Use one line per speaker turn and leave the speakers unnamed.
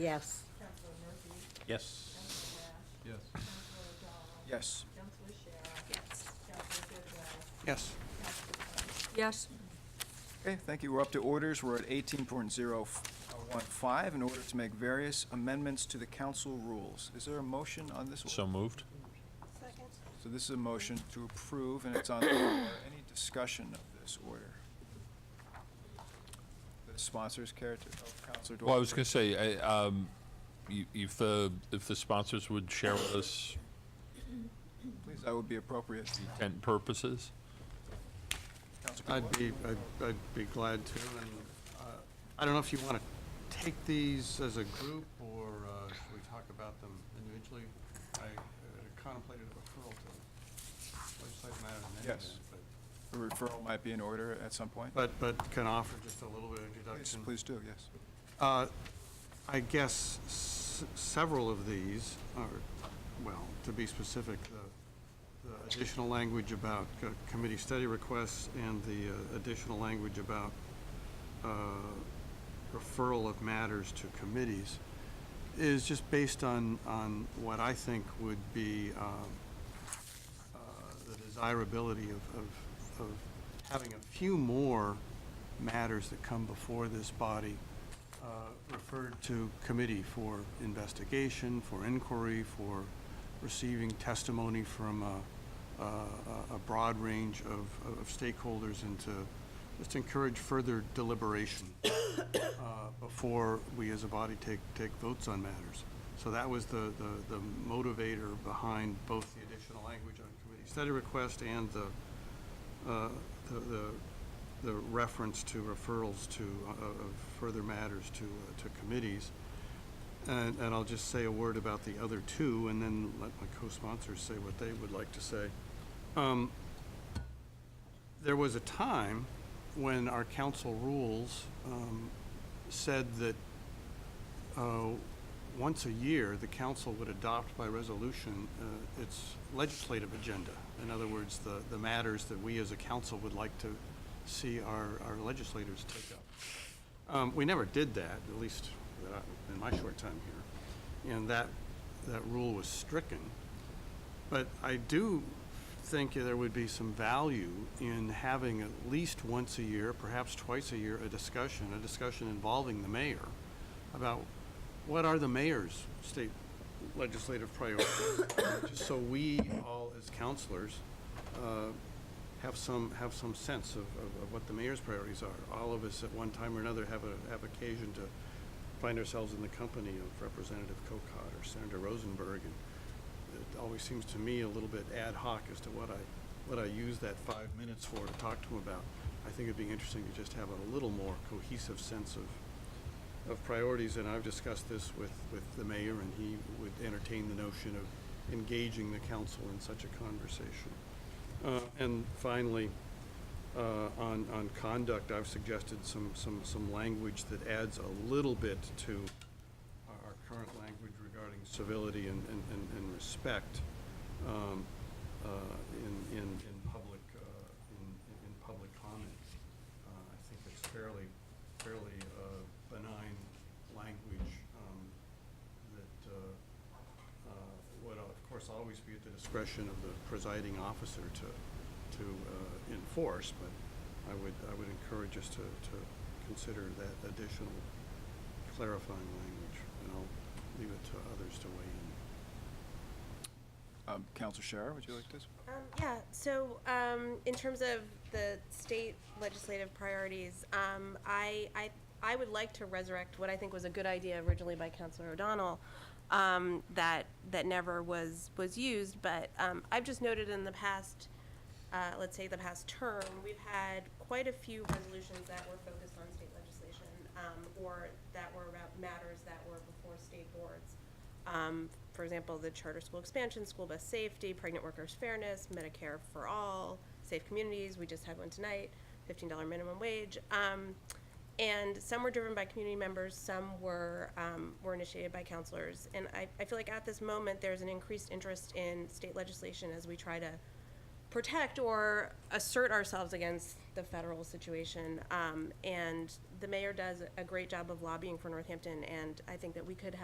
Yes.
Counselor Murphy,
Yes.
Counselor Rash,
Yes.
Counselor O'Donnell.
Yes.
Counselor Shara,
Yes.
Counselor Bidwell,
Yes.
Counselor Thomas.
Yes.
Okay, thank you. We're up to orders. We're at eighteen point zero one five, in order to make various amendments to the council rules. Is there a motion on this? order?
So moved?
So this is a motion to approve, and it's on, the floor. any discussion of this order? The sponsors care to, oh, Counselor Dwight?
Well, I was going to say, I, um, y- if the, if the sponsors would share with us
Please, that would be appropriate.
intent purposes?
Counselor
I'd
Dwight?
be, I'd- I'd be glad to, and uh, I don't know if you want to take these as a group, or uh, should we talk about them individually? I uh, contemplated a referral to legislative matter in any
Yes.
event, but-
A referral might be in order at some point.
but, but can offer just a little bit of
Please,
introduction.
please do, yes.
Uh, I guess s- several of these are, well, to be specific, the- the additional language about co- committee study requests and the uh, additional language about uh, referral of matters to committees is just based on, on what I think would be um, uh, the desirability of, of, of having a few more matters that come before this body uh, referred to committee for investigation, for inquiry, for receiving testimony from a, a, a- a broad range of, of stakeholders and to just encourage further deliberation uh, before we as a body take, take votes on matters. So that was the, the, the motivator behind both the additional language on committee study request and the, uh, the, the- the reference to referrals to, uh, of further matters to, uh, to committees. And, and I'll just say a word about the other two and then let my co-sponsors say what they would like to say. Um, There was a time when our council rules, um, said that, uh, once a year, the council would adopt by resolution uh, its legislative agenda. In other words, the, the matters that we as a council would like to see our, our legislators take up. Um, We never did that, at least that I- in my short time here, and that, that rule was stricken. But I do think there would be some value in having at least once a year, perhaps twice a year, a discussion, a discussion involving the mayor about what are the mayor's state legislative priorities? Just so we all as counselors uh, have some, have some sense of, of of what the mayor's priorities are. All of us at one time or another have a, have occasion to find ourselves in the company of Representative Cocott or Senator Rosenberg and it always seems to me a little bit ad hoc as to what I, what I use that five minutes for to talk to him about. I think it'd be interesting to just have a little more cohesive sense of, of priorities, and I've discussed this with, with the mayor, and he would entertain the notion of engaging the council in such a conversation. Uh, and finally, uh, on, on conduct, I've suggested some, some, some language that adds a little bit to our, our current language regarding civility and, and, and- and respect, um, uh, in, in, in public, uh, in, in in public comment. Uh, I think it's fairly, fairly, uh, benign language, um, that, uh, uh, would of course always be at the discretion of the presiding officer to, to, uh, enforce, but I would, I would encourage us to, to consider that additional clarifying language, and I'll leave it to others to weigh in.
Um, Counselor Shara, would you like this?
Um, yeah, so um, in terms of the state legislative priorities, um, I, I, I would like to resurrect what I think was a good idea originally by Councilor O'Donnell um, that, that never was, was used, but um, I've just noted in the past, uh, let's say the past term, we've had quite a few resolutions that were focused on state legislation um, or that were about matters that were before state boards. Um, for example, the charter school expansion, school bus safety, pregnant workers fairness, Medicare for all, safe communities, we just had one tonight, fifteen dollar minimum wage. Um, and some were driven by community members, some were, um, were initiated by counselors. And I, I feel like at this moment, there's an increased interest in state legislation as we try to protect or assert ourselves against the federal situation. Um, and the mayor does a great job of lobbying for Northampton, and I think that we could have.